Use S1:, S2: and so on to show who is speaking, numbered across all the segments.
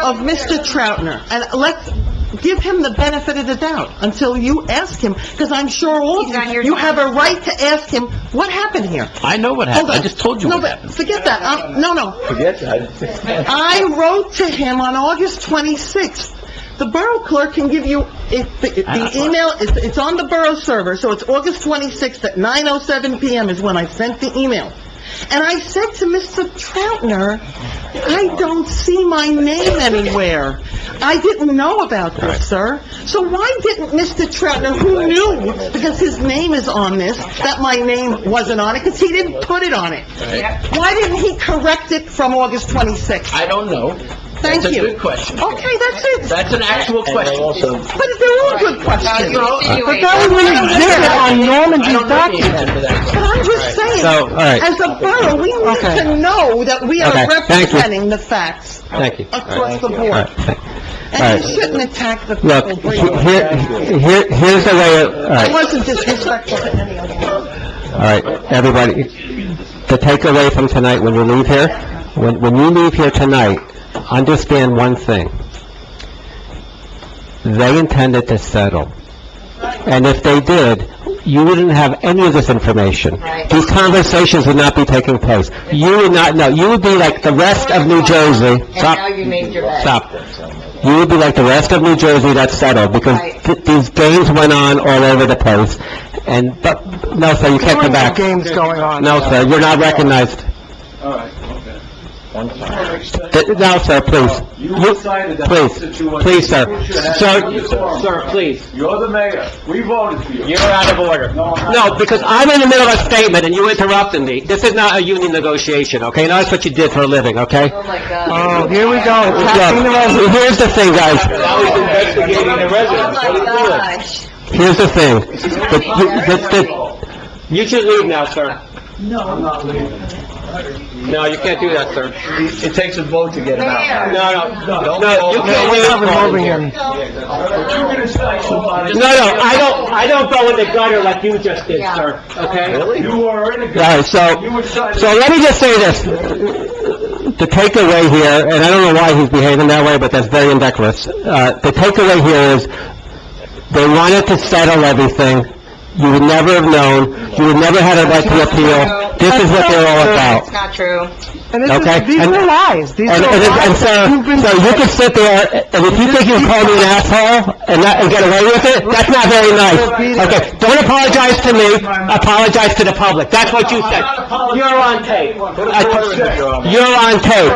S1: of Mr. Troutner, and let's give him the benefit of the doubt until you ask him, because I'm sure all
S2: He's not
S1: of you,
S2: here
S1: you
S2: to-
S1: have a right to ask him, what happened here?
S3: I know what
S1: Hold
S3: happened, I
S1: on.
S3: just told you
S1: No,
S3: what
S1: but
S3: happened.
S1: Forget that, Um, no, no.
S3: Forget that.
S1: I wrote to him on August 26th. The borough clerk can give you, if, the- the email, it's, it's on the borough server, so it's August 26th at 9:07 PM is when I sent the email. And I said to Mr. Troutner, I don't see my name anywhere. I didn't know about this, sir. So why didn't Mr. Troutner, who knew, because his name is on this, that my name wasn't on it, because he didn't put it on it? Why didn't he correct it from August 26th?
S3: I don't know.
S1: Thank
S3: That's a
S1: you.
S3: good question.
S1: Okay, that's it.
S3: That's an actual question.
S1: But they're all good questions.
S3: No, I-
S1: But that was an exhibit on
S3: I don't
S1: Normandy's
S3: know the
S1: document.
S3: answer to that
S1: But
S3: question.
S1: I'm just saying,
S4: So, all right.
S1: as a borough, we need
S4: Okay.
S1: to know that we
S4: Okay,
S1: are
S4: thank you.
S1: representing the facts
S4: Thank you.
S1: across the
S4: All
S1: board.
S4: right, thank-
S1: And
S4: All
S1: you
S4: right.
S1: shouldn't attack the
S4: Look,
S1: people
S4: he-
S1: breathing.
S4: here, here- here's the way, it- all
S1: I
S4: right,
S1: wasn't disrespectful to any of you.
S4: all right, everybody, the takeaway from tonight, when you leave here, when, when you leave here tonight, understand one thing. They intended to settle. And if they did, you wouldn't have any of this information.
S2: Right.
S4: These conversations would not be taking place. You would not know, you would be like the rest of New Jersey.
S2: And
S4: Stop.
S2: now you made your bed.
S4: Stop. You would be like the rest of New Jersey that's settled, because
S2: Right.
S4: th- these games went on all over the place, and, but, no, sir, you can't come back.
S1: games going on.
S4: No, sir, you're not recognized.
S5: All right, okay.
S4: Th- No, sir, please.
S5: You
S4: You-
S5: decided that
S4: please,
S5: situation.
S4: Please, sir.
S5: You should have-
S4: Sir,
S3: Sir, please,
S5: You're the mayor. We voted for you.
S3: you're out of order.
S5: No, I'm not.
S4: no, because I'm in the middle of a statement and you interrupted me. This is not a union negotiation, okay? Now that's what you did for a living, okay?
S2: Oh, my God.
S4: here we go. Here's the thing,
S3: Now
S4: guys.
S3: he's investigating the
S2: Oh,
S3: residents. What
S2: my
S3: are you doing?
S2: gosh.
S4: Here's the thing. The- the- the-
S3: You should leave now, sir. No, I'm not leaving. No, you can't do that, sir.
S5: It takes a vote to get him
S2: Mayor.
S3: No, no,
S5: Don't
S3: no,
S5: vote.
S3: you can't do that. No, no, I don't, I don't go in the gutter like you just did,
S2: Yeah.
S3: sir, okay?
S5: You were in a
S4: All right, so,
S5: You decided.
S4: so let me just say this. The takeaway here, and I don't know why he's behaving that way, but that's very indecorous. Uh, the takeaway here is, they wanted to settle everything. You would never have known, you would never had a right to appeal. This is what they're all
S2: That's
S4: about,
S2: not true.
S4: okay? And-
S1: lies. These
S4: and, and, and so, so you can sit there, and if you think you can call me an asshole and not, and get away with it, that's not very nice. Okay, don't apologize to me, apologize to the public. That's what you said. You're on tape. I- You're on tape.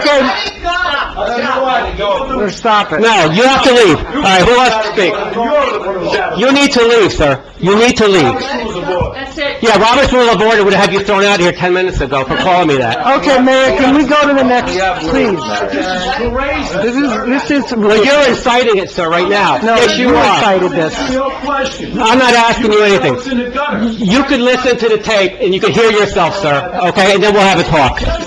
S4: Okay,
S1: Stop it.
S4: no, you have to leave. All right, who wants to speak?
S5: You're the one who said it.
S4: You need to leave, sir. You need to leave.
S5: She was the board.
S4: Yeah, Robert's rule of order would have had you thrown out here 10 minutes ago for calling me that.
S1: Okay, Mayor, can we go to the next, please? This is, this is...
S4: Well, you're inciting it, sir, right now. Yes, you are.
S1: this.
S5: Your question.
S4: I'm not asking you Mm-hmm. anything.
S5: It's in the gutter.
S4: You could listen to the tape, and you could hear yourself, sir, okay? And then we'll have a talk.
S5: Well,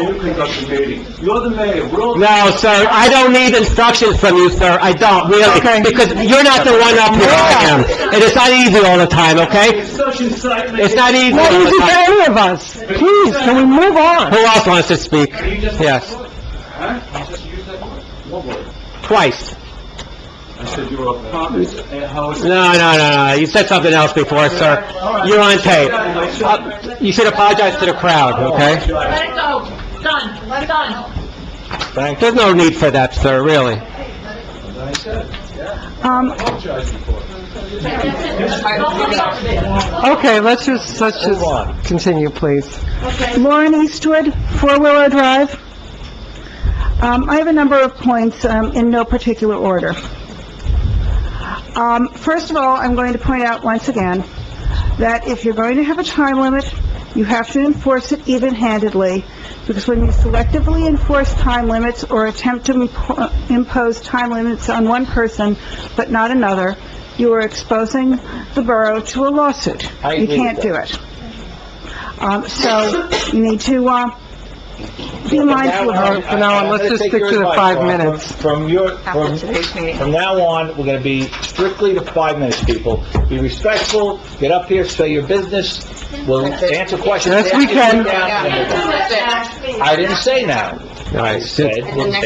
S5: you conduct the meeting. You're the mayor. We're all-
S4: No, sir, I don't need instructions from you, sir, I don't, really, because you're not the one up here, I am. And it's not easy all the time, okay?
S5: It's such incitement.
S4: It's not easy all the time.
S1: any of us. Please, can we move on?
S4: Who else wants to speak? Yes,
S5: Huh? Just use that word. What word?
S4: twice.
S5: I said you were a communist. And how is it?
S4: No, no, no, no, you said something else before, sir. You're on tape. Uh, You should apologize to the crowd, okay?
S6: Let it go. Done. Let it go.
S4: There's no need for that, sir, really.
S1: Okay, let's just, let's just continue, please.
S7: Lauren Eastwood, Four Willow Drive. Um, I have a number of points um, in no particular order. Um, First of all, I'm going to point out once again that if you're going to have a time limit, you have to enforce it even-handedly, because when you selectively enforce time limits or attempt to impo- impose time limits on one person but not another, you are exposing the borough to a lawsuit.
S3: I agree with
S7: You can't do it. Um, So you need to uh, be mindful of it.
S1: from now on, let's
S3: I'm gonna
S1: just
S3: take
S1: stick
S3: your
S1: to the
S3: advice,
S1: five
S3: Barbara.
S1: minutes.
S3: From your, from,
S2: After today's meeting.
S3: from now on, we're gonna be strictly to five minutes, people. Be respectful, get up here, say your business, we'll answer questions.
S1: Yes, we
S3: after you sit
S1: can.
S3: down, and we'll go. I didn't say now.
S4: All right,
S3: said,
S4: since-
S3: we'll take